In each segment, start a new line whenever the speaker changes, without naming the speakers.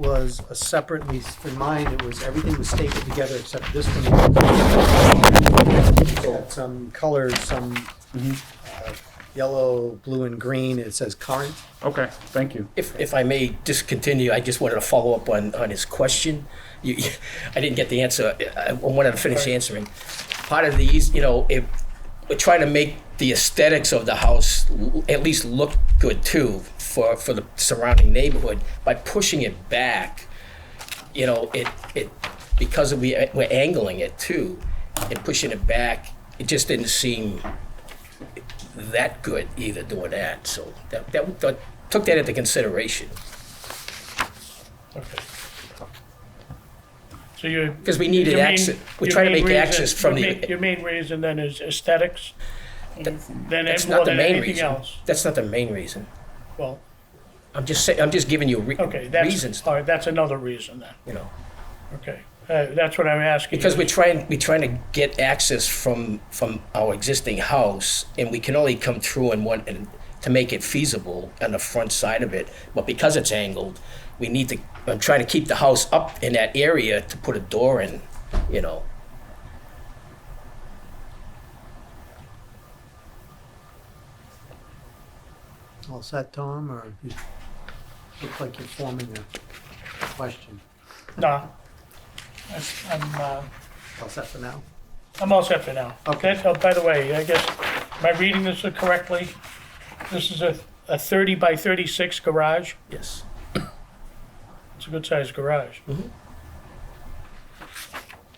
was a separate, at least in mine, it was, everything was stapled together except this one. Got Some colors, some uh, yellow, blue, and green, it says current.
Okay, thank you.
If, if I may discontinue, I just wanted to follow up on, on his question. You, you- I didn't get the answer. I I wanted to finish answering. Part of these, you know, if we're trying to make the aesthetics of the house l- at least look good too for, for the surrounding neighborhood by pushing it back, you know, it, it, because we, we're angling it too and pushing it back, it just didn't seem that good either doing that. So that, that, that took that into consideration
Okay. So you.
because we needed
your main-
access. We
your
try to
main
make
reason-
access from
your main-
the.
Your main reason then is aesthetics, then
That's
more
not the
than
main
anything
reason.
else.
That's not the main reason.
Well,
I'm just saying. I'm just giving you re-
okay, that's,
reasons.
all right, that's another reason then,
You know,
okay. Uh, that's what I'm asking.
because we're trying. We're trying to get access from from our existing house, and we can only come through and one and to make it feasible on the front side of it. But because it's angled, we need to. I'm trying to keep the house up in that area to put a door in. You know.
All set, Tom, or you look like you're forming a question?
No. That's- I'm, uh,
All set for now?
I'm all set for now.
Okay.
That- oh, By the way, I guess, am I reading this correctly? This is a, a thirty by thirty-six garage?
Yes.
It's a good-sized garage.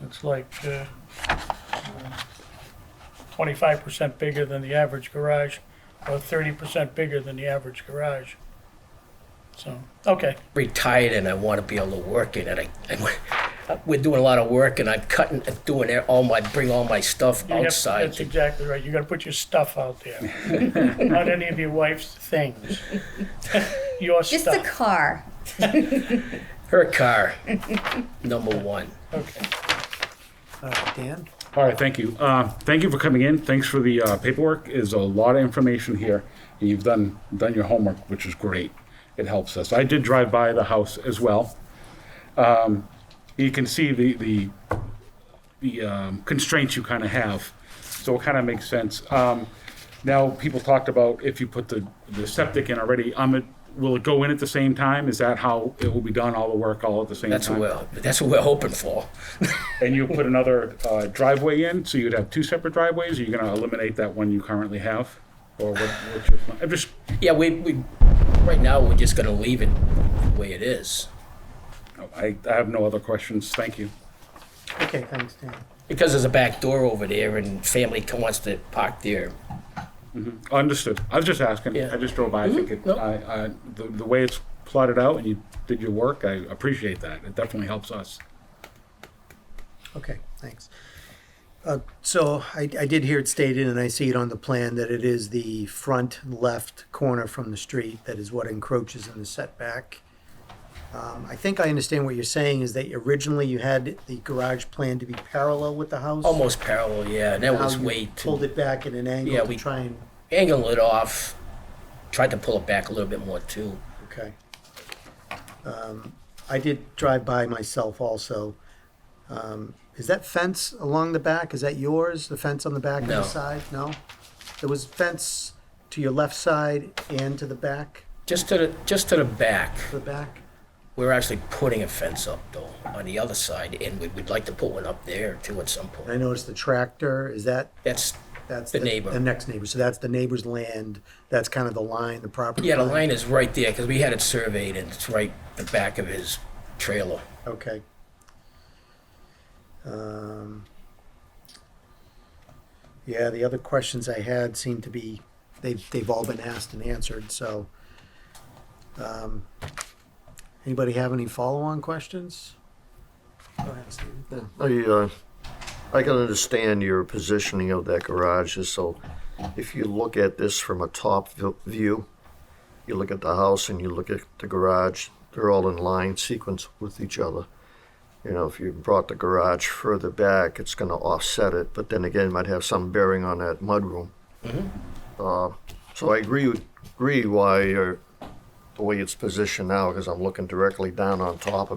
It's like uh, twenty-five percent bigger than the average garage, or thirty percent bigger than the average garage. So, okay,
retired and I want to be able to work in it. I, I, we're doing a lot of work and I'm cutting, doing it- all my, bring all my stuff
You have-
outside.
That's exactly right. You gotta put your stuff out there. Not any of your wife's things. Your
Just the
stuff.
car.
Her car, number one.
Okay.
Uh, Dan?
All right, thank you. Uh, thank you for coming in. Thanks for the uh, paperwork. Is a lot of information here, and you've done done your homework, which is great. It helps us. I did drive by the house as well. Um, you can see the the the um, constraints you kind of have, so it kind of makes sense. Um, now people talked about if you put the the septic in already. Um, it, will it go in at the same time? Is that how it will be done? All the work all at the same
That's
time.
what we're, that's what we're hoping for.
And you put another uh, driveway in, so you'd have two separate driveways, or you're gonna eliminate that one you currently have? Or what, what's your plan? I'm just,
Yeah, we, we, right now, we're just gonna leave it the way it is.
I, I have no other questions, thank you.
Okay, thanks, Dan.
Because there's a back door over there and family co- wants to park there.
Understood, I was just asking,
Yeah.
I just drove by, I think it,
no.
I, I, the, the way it's plotted out and you did your work, I appreciate that, it definitely helps us.
Okay, thanks. Uh, So I, I did hear it stated, and I see it on the plan, that it is the front left corner from the street that is what encroaches in the setback. Um, I think I understand what you're saying, is that originally you had the garage plan to be parallel with the house?
Almost parallel, yeah, that
Now
was
you
way too,
Pulled it back at an
Yeah,
angle to
we-
try and,
angle it off. Tried to pull it back a little bit more too.
okay. Um, I did drive by myself also. Um, Is that fence along the back, is that yours, the fence on the back and
No.
the side? No? There was fence to your left side and to the back,
Just to the, just to the back.
the back?
We're actually putting a fence up though, on the other side, and we'd, we'd like to put one up there too at some
I
point.
noticed the tractor, is that,
That's,
that's
The neighbor.
The next neighbor, so that's the neighbor's land, that's kind of the line, the property
yeah, the
line.
line is right there, because we had it surveyed, and it's right the back of his trailer.
Okay. Um, Yeah, the other questions I had seem to be, they've, they've all been asked and answered, so. um, Anybody have any follow-on questions? Go ahead, Stephen.
Yeah, I, uh, I can understand your positioning of that garage, is so if you look at this from a top vi- view, you look at the house and you look at the garage, they're all in line sequence with each other. You know, if you brought the garage further back, it's gonna offset it, but then again, it might have some bearing on that mudroom. Uh, so I agree, with- agree why you're the way it's positioned now, because I'm looking directly down on top of.